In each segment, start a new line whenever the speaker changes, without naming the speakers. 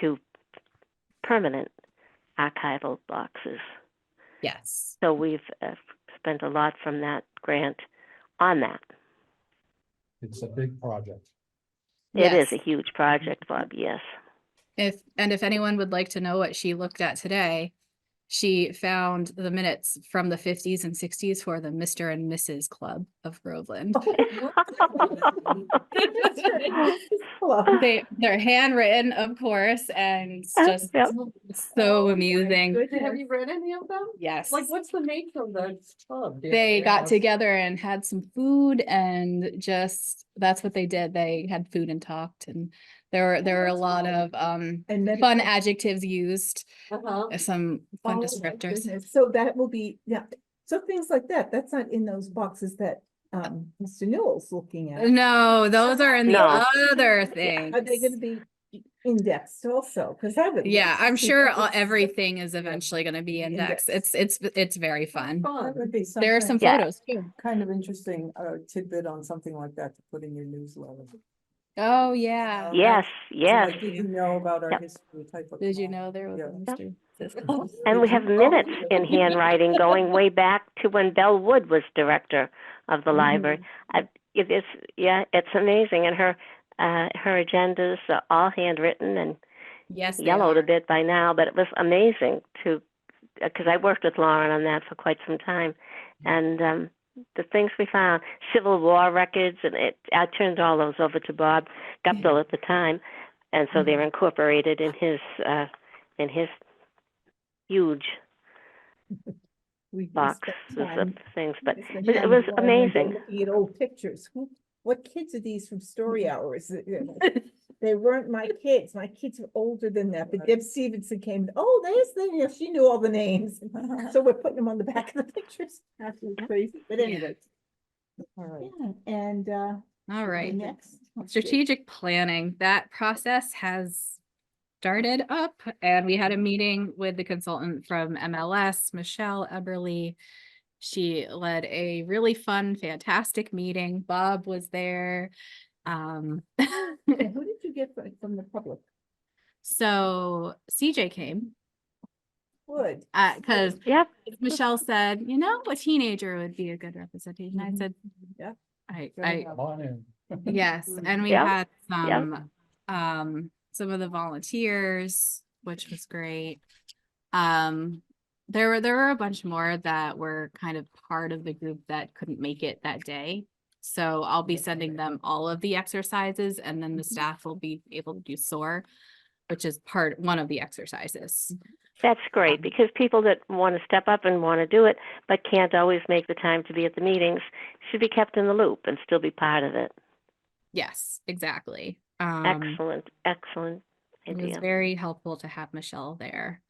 to permanent archival boxes.
Yes.
Mm-hmm.
So we've uh, spent a lot from that grant on that.
It's a big project.
It is
Yes.
a huge project, Bob, yes.
If, and if anyone would like to know what she looked at today, she found the minutes from the fifties and sixties for the Mr. and Mrs. Club of Groveland.
Oh.
They, they're handwritten, of course, and it's just
Yep.
so amusing.
Good. Have you read any of them?
Yes.
Like, what's the nature of the club? Do you
They
have to
got
ask?
together and had some food and just, that's what they did. They had food and talked and there were, there were a
Oh, that's
lot
fun.
of, um,
And then.
fun adjectives used,
Uh-huh.
some fun
Oh, my
descriptors.
goodness. So that will be, yeah, so things like that, that's not in those boxes that um Mr. Newell's looking at.
No, those are in the
No.
other
Yeah, Are they gonna
things.
be indexed also? Cause I would.
Yeah,
love to
I'm
see
sure
what
all-
this-
everything is eventually gonna be indexed. It's, it's, it's very fun.
Fun.
That would be some.
There are some
Yeah.
photos too.
Kind of interesting uh, tidbit on something like that to put in your newsletter. So,
Oh, yeah.
Okay.
Yes, yes.
like, Did you know about our
Yep.
history type of?
Did you
blog.
know there was
Yeah.
a mystery?
And we have
Oh.
minutes in handwriting going way back to when Belle Wood was director of
Mm-hmm.
the library. I, it is, yeah, it's amazing. And her uh, her agendas are all handwritten and
Yes. they
yellowed a
are.
bit by now, but it was amazing to because I worked with Lauren on that for quite some time,
Mm-hmm.
and um, the things we found, Civil War records, and it I turned all those over to Bob Guptill at the time, and so they're
Mm-hmm.
incorporated in his uh, in his huge
we do
boxes
spend
of
time-
things. But
we spend
but it
time
was
going around and
amazing.
Looking at old pictures, who, what kids are these from story hours? Uh, you know, They weren't my kids, my kids were older than that, but Deb Stevenson came, oh, there's the, she knew all the names. So we're putting them on the back of the pictures. Absolutely crazy, but
Yeah.
anyway. All right, and uh.
All right.
Next.
Strategic planning, that process has started up and we had a meeting with the consultant from MLS, Michelle Eberly. She led a really fun, fantastic meeting. Bob was there. Um,
And who did you get from, from the public?
so CJ came,
Wood.
uh, cause
Yep.
Michelle said, you know, a teenager would be a good representation. I
Mhm.
said,
Yeah.
I,
Fair
I,
enough.
Come on in.
Yes, and we
Yep,
had
yep.
some, um, some of the volunteers, which was great. Um, there were, there were a bunch more that were kind of part of the group that couldn't make it that day. So I'll be sending them all of the exercises and then the
Mm-hmm.
staff will be able to do SOAR, which is part, one of the exercises.
Mm-hmm. That's great
Um,
because people that want to step up and want to do it but can't always make the time to be at the meetings should be kept in the loop and still be part of it.
Yes, exactly. Um,
Excellent, excellent
it was
idea.
very helpful to have Michelle there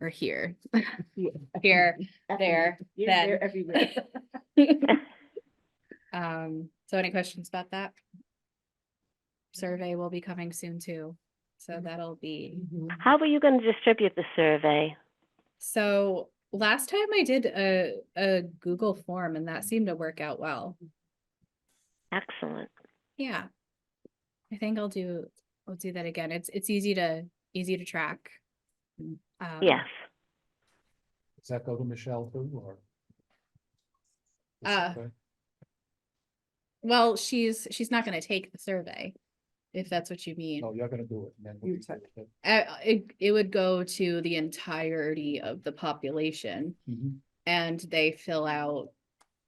or here, here. There,
You're
then.
there everywhere.
Um, so any questions about that? Survey will be coming soon too, so that'll be,
Mm-hmm.
How were you going to distribute the survey?
so last time I did a, a Google form and that seemed to work out well.
Excellent.
Yeah. I think I'll do, I'll do that again. It's, it's easy to, easy to track. Um,
Yes.
Does that go to Michelle too, or?
Uh,
Okay.
Well, she's, she's not gonna take the survey, if that's what you mean.
No, you're gonna do it. and then we
You
can do it.
Uh, it, it would go to the entirety of the population.
Mhm.
and they fill out,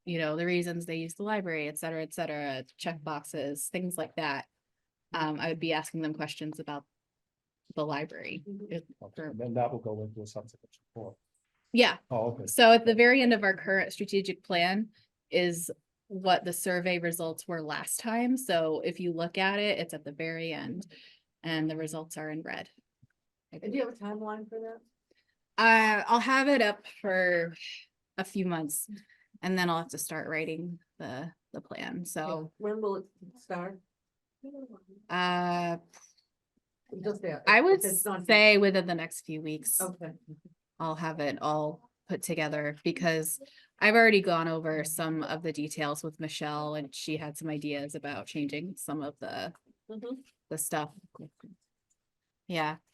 you know, the reasons they use the library, et cetera, et cetera, check boxes, things like that. Um, I would be asking them questions about the library. It-
Okay, And then that will go into a subsequent report.
Yeah,
Oh, okay.
so at the very end of our current strategic plan is what the survey results were last time. So if you look at it, it's at the very end and the results are in red. I
And do
believe.
you have a timeline for that?
Uh, I'll have it up for a few months and then I'll have to start writing the, the plan, so,
When will it start?
uh,
Just that.
I would
if it's not-
say within the next few weeks,
Okay.
I'll have it all put together because I've already gone over some of the details with Michelle and she had some ideas about changing some of the,
Mhm.
the stuff. yeah.